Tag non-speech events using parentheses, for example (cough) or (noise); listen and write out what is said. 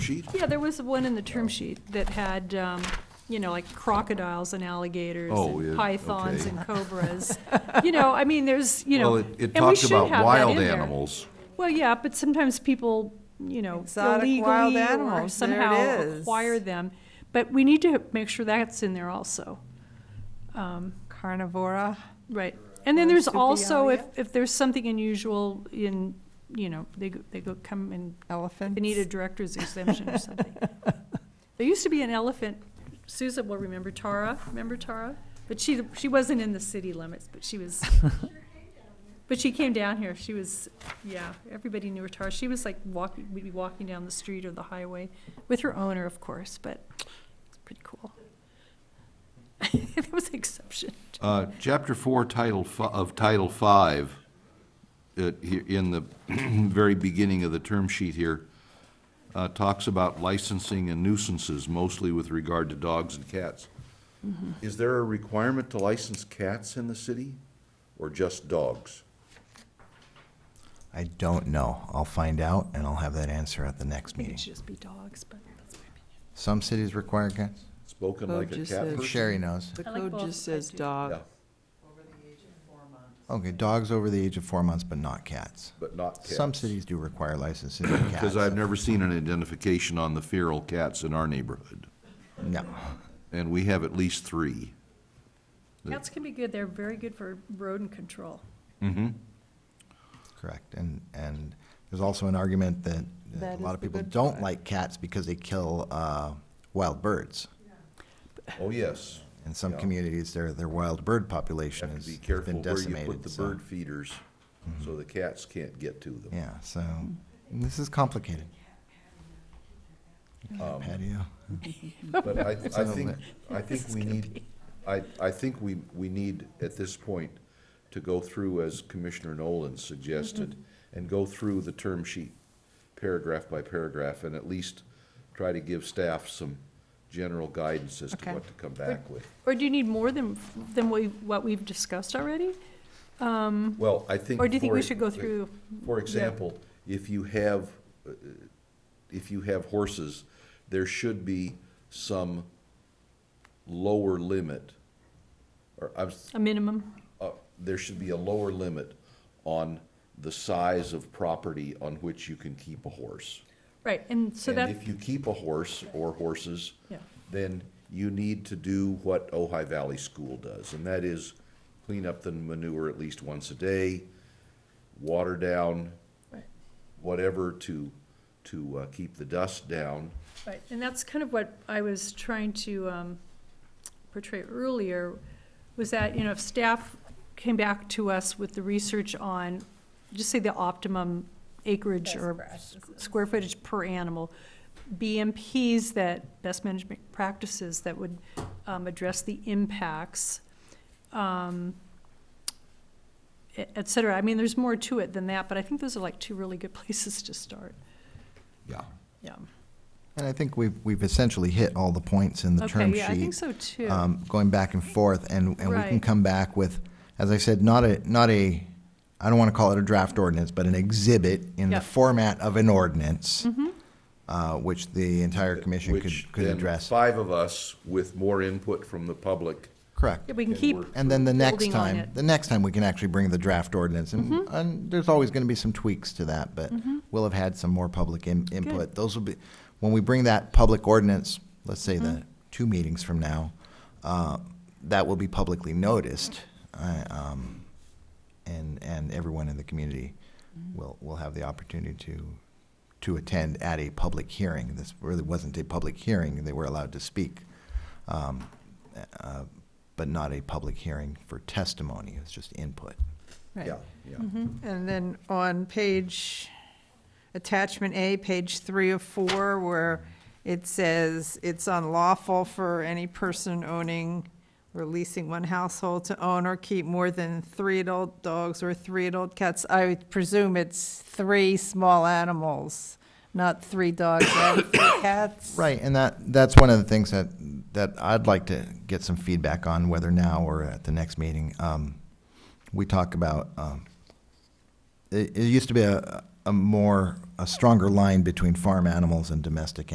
sheet? Yeah, there was one in the term sheet that had, um, you know, like crocodiles and alligators Oh, yeah, and pythons okay. (laughs) and cobras. You know, I mean, there's, you know, Well, it, and we should it talks have that in about wild there. animals. Well, yeah, but sometimes people, you know, Exotic wild illegally or animals, there it somehow is. acquire them. But we need to make sure that's in there also. Carnivora. Right. And then there's Should be also, on if, it. if there's something unusual in, you know, they, go- they go, come and, Elephants. they need a director's exemption or something. There used to be an elephant, Susan will remember Tara, remember Tara? But she, she wasn't in the city limits, but she was, but she came down here, she was, yeah, everybody knew her Tara. She was like walking, we'd be walking down the street or the highway with her owner, of course, but it's pretty cool. (laughs) That was an exception. Uh, Chapter four, title, fi- of Title five, uh, he- in the (clears throat) very beginning of the term sheet here, uh, talks about licensing and nuisances, mostly with regard to dogs and cats. Mm-hmm. Is there a requirement to license cats in the city, or just dogs? I don't know. I'll find out and I'll have that answer at the next I think it meeting. should just be dogs, but that's my opinion. Some cities require cats. Spoken Well, like a just cat says- person? Sherry knows. The I like code both, just I says do. Yeah, dog. Okay, dogs over the age of four months, but not cats. But not cats. Some cities do require (clears throat) licenses for cats. Because I've never seen an identification on the feral cats in our neighborhood, No. and we have at least three. Yeah. Cats can be good, they're very good for rodent control. Correct. And, and there's also an argument that That that a is lot of the people good don't part. like cats because they kill uh, wild birds. Oh, yes. In some Yeah. communities, their, their wild bird population Have has to be has careful been where you put decimated. the so- bird feeders, Mm-hmm. so the cats can't get to them. Yeah, so, and this is complicated. Um, Patio. But (laughs) I, I think, I This think is we gonna need, be- I, I think we, we need at this point to go through, as Commissioner Nolan suggested, Mm-hmm. and go through the term sheet paragraph by paragraph and at least try to give staff some general guidance as to Okay. what to come back with. Or do you need more than, than we, what we've discussed already? Well, I think. Or do you think for we e- should go through- For example, if you have, uh, if you have horses, there should be some lower limit. Or I was, A minimum? uh, there should be a lower limit on the size of property on which you can keep a horse. Right, and so that, And if you keep a horse or horses, Yeah. then you need to do what Ojai Valley School does, and that is clean up the manure at least once a day, water down, Right. whatever to, to uh, keep the dust down. right, and that's kind of what I was trying to um, portray earlier, was that, you know, if staff came back to us with the research on, just say the optimum acreage or square footage per animal, BMPs that, best management practices that would um, address the impacts, um, e- et cetera. I mean, there's more to it than that, but I think those are like two really good (laughs) places to start. Yeah. Yeah. And I think we've, we've essentially hit all the points in the term Okay, sheet. yeah, I think so too. um, Going back and forth, and, and we can Right. come back with, as I said, not a, not a, I don't want to call it a draft ordinance, but an exhibit in the Yep. Mm-hmm. format of an ordinance, uh, which the entire commission Which could, could then address. Five of us with more input from the public. Correct. Yeah, we can and keep, we're- And then the next Building on time, it. Mm-hmm. the next time we can actually bring the draft ordinance, and, and there's always going to be some tweaks to that, but we'll have had some more public in- input. Those will be, when we bring that public ordinance, let's say Mm-hmm. the two meetings from now, uh, that will be publicly noticed, I, um, and, and everyone in the community Mm-hmm. will, will have the opportunity to, to attend at a public hearing. This really wasn't a public hearing, they were allowed to speak, um, uh, but not a public hearing for testimony, it's just input. Right. Yeah, yeah. And then on page, attachment A, page three of four, where it says it's unlawful for any person owning or leasing one household to own or keep more than three adult dogs or three adult cats. I would presume it's three small animals, not three dogs and three cats. Right, and that, that's one of the things that, that I'd like to get some feedback on, whether now or at the next meeting. Um, We talk about, um, it, it used to be a, a more, a stronger line between farm animals and domestic